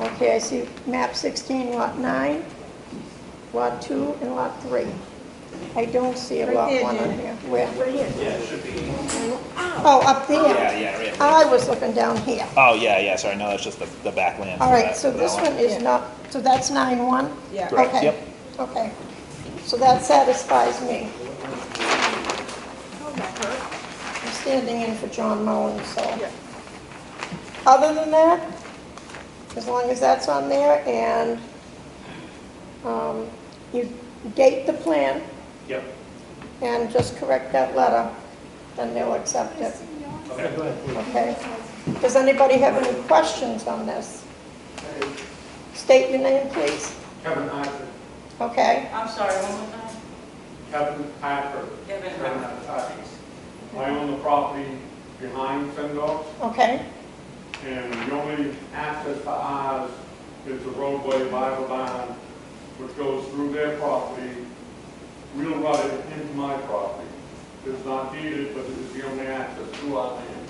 Okay, I see map 16, lot 9, lot 2, and lot 3. I don't see a Right lot there, 1 on Janet. here. Where? Right here. Yeah, it should be. Oh, up there. Yeah, yeah, right, right. I was looking down here. Oh, yeah, yeah, sorry, no, that's just the, the backland. All right, so this one Yeah. is not, so that's 9-1? Yeah. Correct, Okay, yep. Okay, so that satisfies me. Oh, that hurt. I'm standing in for John Mullin, so. Yeah. Other than that, as long as that's on there and um, you date the plan Yep. and just correct that letter, then they'll accept it, Okay, go ahead. okay? Um, Does anybody have any questions on this? State your name, please. Kevin Hartford, Okay, I'm sorry, one more time? Kevin Hartford. Kevin Hartford. I own the property behind Fendo, okay, and the only access to ours is the roadway by the barn, which goes through their property, real right into my property. It's not deeded, but it is the only access to our land.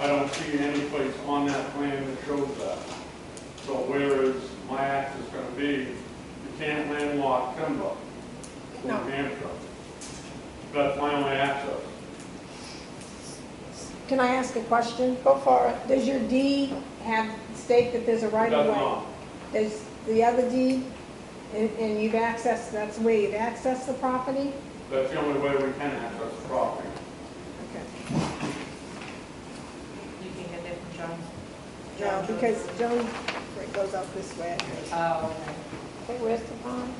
I don't see any place on that plan that shows that. So where is my access gonna be? You can't landlock timber in No. New Hampshire. That's my only access. Can I ask a question? go for it. Does your deed have, state that there's a right That's of way? not. Does the other deed, and, and you've accessed, that's the way you've accessed the property? That's the only way we can access the property. Okay. You can get that from John? No, because Joan goes up this way. Oh, okay. Okay, where's the bond?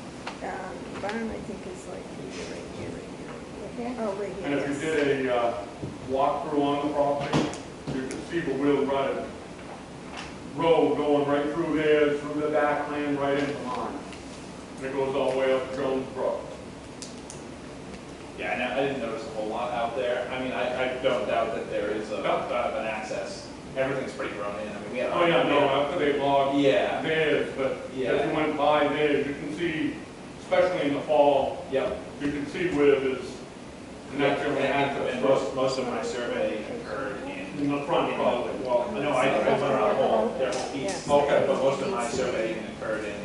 Um, Barn, I think, is like here, right here, right here. Yeah. Oh, right here. And if you yes. did a uh, walkthrough on the property, you could see the wheel rutted road going right through there, through the back lane, right into mine. And it goes all the way up Jones Brook. Yeah, I know, I didn't notice a whole lot out there. I mean, I, I don't doubt that there is a, No. uh, an access. Everything's pretty grown in, I mean, we had. Oh, yeah, no, after they logged Yeah. theirs, but Yeah. if you went by there, you can see, especially in the fall, Yep. you can see where there's naturally And access most, most of my survey occurred in in. the front probably. Well, no, I, I went around the whole, their whole piece. Yes. Okay, but most of my surveying occurred in,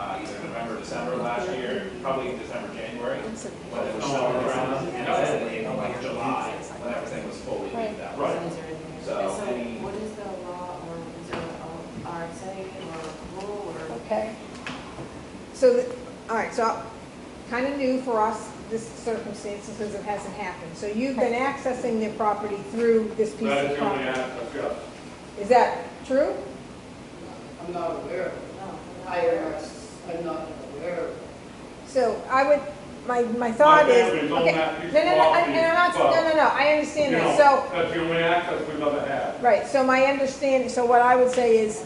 uh, either November, December last year, probably in December, January. When Oh, it was snowing around, and I was in like July, when everything was fully leaved out. Right. So, any- what is the law, or is there a RSA or rule, or? Okay, So, the- all right, so kind of new for us, this circumstance, because it hasn't happened. So you've been accessing the property through this piece That of is the only property. access, yes. Is that true? I'm not aware of it. I am not aware of it. So I would, my, my thought is. okay. family's No, on no, that piece of no, I- property, and I'm not, no, no, no, I understand You know, that. So. That's the only access we've ever had. Right, so my understanding, so what I would say is,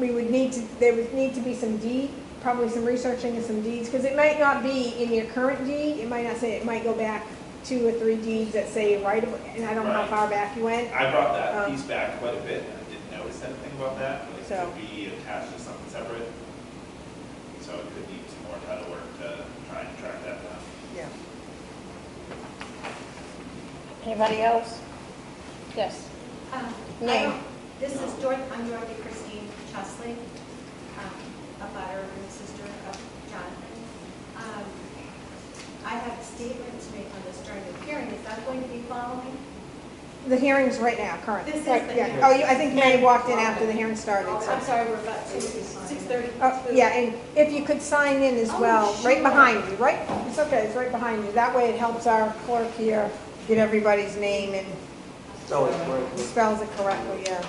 we would need to, there would need to be some deed, probably some researching and some deeds, because it might not be in your current deed, it might not say, it might go back two or three deeds that say right, of- and I don't know how Right. far back you went. I brought that Um, piece back quite a bit, and I didn't notice anything about that, but it So- could be attached to something separate. So it could need some more title work to try and track that down. Yeah. anybody else? Yes. Um, I Name. don't- This is Dorothy, I'm Dorothy Christine Chesley, um, a butter and sister of Jonathan. Um, I have a statement to make on this during the hearing, is that going to be following? The hearing's right now, current. This is Right, the yeah. hearing. Oh, Oh, you, I think you may have walked in after the hearing started, I'm so. sorry, we're about to, six thirty. Oh, yeah, and if you could sign in as Oh, well, right sure. behind you, right? It's okay, it's right behind you. That way it helps our clerk here get everybody's name and No, it's working. spells it correctly, yeah.